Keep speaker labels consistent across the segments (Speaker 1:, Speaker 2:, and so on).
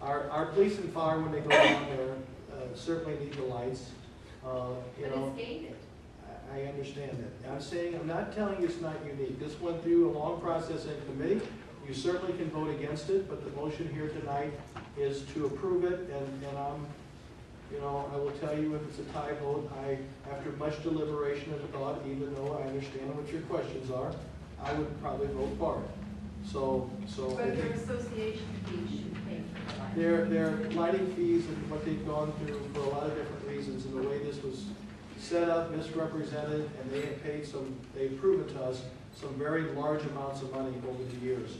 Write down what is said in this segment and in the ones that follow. Speaker 1: Our, our police and fire, when they go down there, uh, certainly need the lights, uh, you
Speaker 2: But
Speaker 1: know.
Speaker 2: it's gated.
Speaker 1: I I understand that. I'm saying, I'm not telling you it's not unique. This went through a long process in committee. You certainly can vote against it, but the motion here tonight is to approve it, and, and I'm, you know, I will tell you if it's a tie vote, I, after much deliberation and thought, even though I understand what your questions are, I would probably vote for it. So, so.
Speaker 2: But your association fee should pay for the light.
Speaker 1: Their, their lighting fees and what they've gone through for a lot of different reasons, and the way this was set up, misrepresented, and they have paid some, they've proven to us, some very large amounts of money over the years.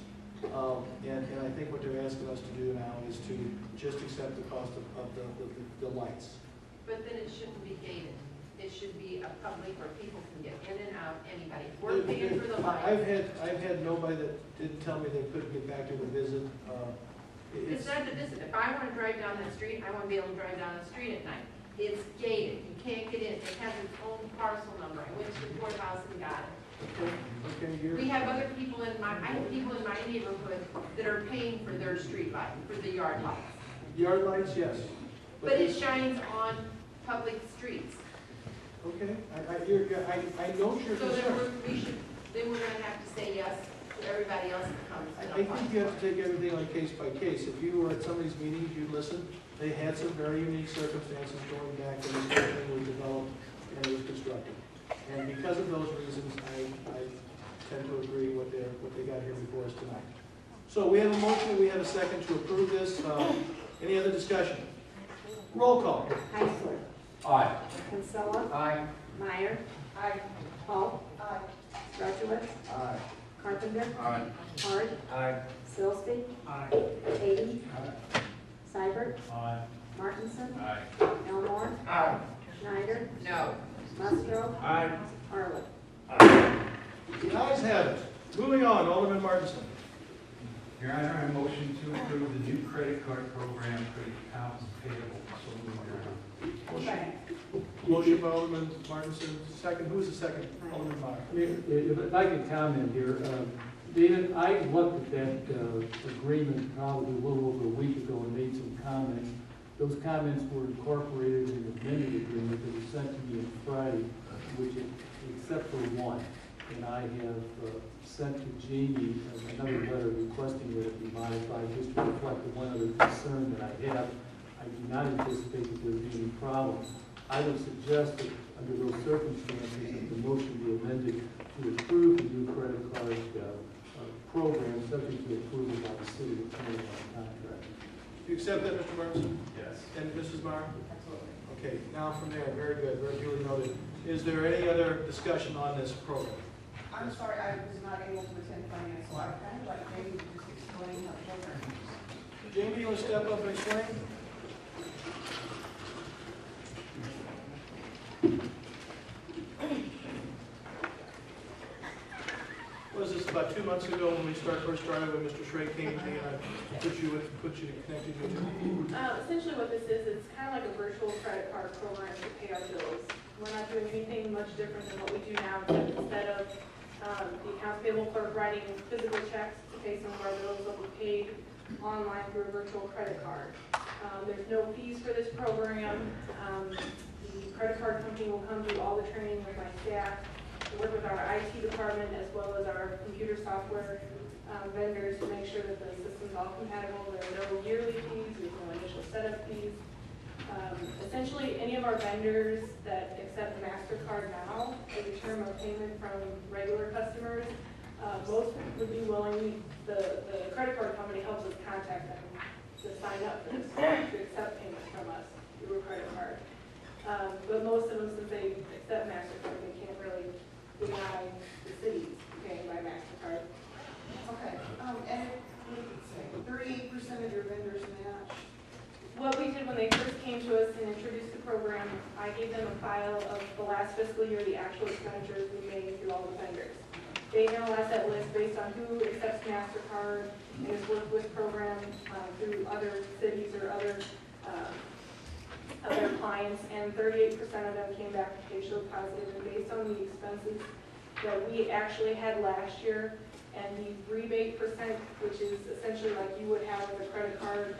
Speaker 1: Um, and, and I think what they're asking us to do now is to just accept the cost of, of the, the, the lights.
Speaker 2: But then it shouldn't be gated. It should be a public where people can get in and out, anybody. We're paying for the
Speaker 1: I've
Speaker 2: light.
Speaker 1: had, I've had nobody that didn't tell me they couldn't get back to the visit, uh, it- it's,
Speaker 2: It's not the visit. If I want to drive down that street, I want to be able to drive down the street at night. It's gated. You can't get in. It has its own parcel number. I went to the courthouse and got it.
Speaker 1: okay, okay, you're.
Speaker 2: We have other people in my, I have people in my neighborhood that are paying for their street light, for the yard lights.
Speaker 1: Yard lights, yes.
Speaker 2: But it
Speaker 1: this-
Speaker 2: shines on public streets.
Speaker 1: Okay, I, I, you're, you're- I, I know your
Speaker 2: So then
Speaker 1: concern.
Speaker 2: we're, we should, then we're gonna have to say yes to everybody else that comes
Speaker 1: I
Speaker 2: and
Speaker 1: I think
Speaker 2: applies.
Speaker 1: you have to take everything on case by case. If you were at some of these meetings, you'd listen. They had some very unique circumstances going back when this whole thing was developed and it was constructed. And because of those reasons, I, I tend to agree with their, what they got here before us tonight. So we have a motion, we have a second to approve this. Uh, Any other discussion? Roll call.
Speaker 3: Heisler.
Speaker 4: Aye.
Speaker 3: Kinsella.
Speaker 4: Aye.
Speaker 3: Meyer. Aye. Paul. Aye. Rudowitz.
Speaker 4: Aye.
Speaker 3: Carpenter.
Speaker 4: Aye.
Speaker 3: Hart.
Speaker 4: Aye.
Speaker 3: Silsby. Aye. Hayden. Seibert.
Speaker 4: Aye.
Speaker 3: Martinson.
Speaker 4: Aye.
Speaker 3: Elmore.
Speaker 4: Aye.
Speaker 3: Schneider.
Speaker 2: No.
Speaker 3: Musgrove.
Speaker 4: Aye.
Speaker 3: Arlen.
Speaker 1: The ayes have it. Moving on, Alderman Martinson.
Speaker 5: Your Honor, I motion to approve the new credit card program for the accounts payable. So moved, Your Honor.
Speaker 3: Second.
Speaker 1: Motion by Alderman Martinson, second. Who's the second?
Speaker 3: Aye.
Speaker 1: Alderman Meyer.
Speaker 6: If if I can comment here, uh, David, I looked at that uh, agreement probably a little over a week ago and made some comments. Those comments were incorporated in the amended agreement that was sent to me on Friday, which, is- except for one, and I have uh, sent to Jamie uh, another letter requesting that it be modified just to reflect the one other concern that I have. I do not anticipate that there will be any problems. I would suggest that under those circumstances, that the motion be amended to approve the new credit card uh, uh, program subject to approval by the city attorney on contract.
Speaker 1: Do you accept that, Mr. Martinson?
Speaker 5: Yes.
Speaker 1: And Mrs. Meyer? Okay, now from there, very good, very duly noted. Is there any other discussion on this program?
Speaker 7: I'm sorry, I was not able to attend finance, so I kind of like maybe just explain how program works.
Speaker 1: Jamie, you want to step up and explain? Was this about two months ago when we started, first started, when Mr. Schrey came to me and I put you, with- put you, connected you to?
Speaker 8: Um, essentially what this is, it's kind of like a virtual credit card program to pay our bills. We're not doing anything much different than what we do now, except instead of, um, the accounts payable clerk writing physical checks to pay some of our bills, that we paid online through a virtual credit card. Um, there's no fees for this program. Um, the credit card company will come do all the training with my staff, work with our IT department as well as our computer software um, vendors to make sure that the system's all compatible, there are no yearly fees, there's no initial setup fees. Um, Essentially, any of our vendors that accept MasterCard now as a term of payment from regular customers, uh, most would be willing, the, the credit card company helps us contact them to sign up for this, to accept payments from us through a credit card. Um, But most of them, since they accept MasterCard, they can't really deny the cities paying by MasterCard.
Speaker 7: Okay, um, and what did it say? Thirty-eight percent of your vendors match.
Speaker 8: What we did when they first came to us and introduced the program, I gave them a file of the last fiscal year, the actual expenditures we made through all the vendors. They analyzed that list based on who accepts MasterCard and has worked with programs um, through other cities or other, um, other clients. And thirty-eight percent of them came back and they showed positive, and based on the expenses that we actually had last year and the rebate percent, which is essentially like you would have with a credit card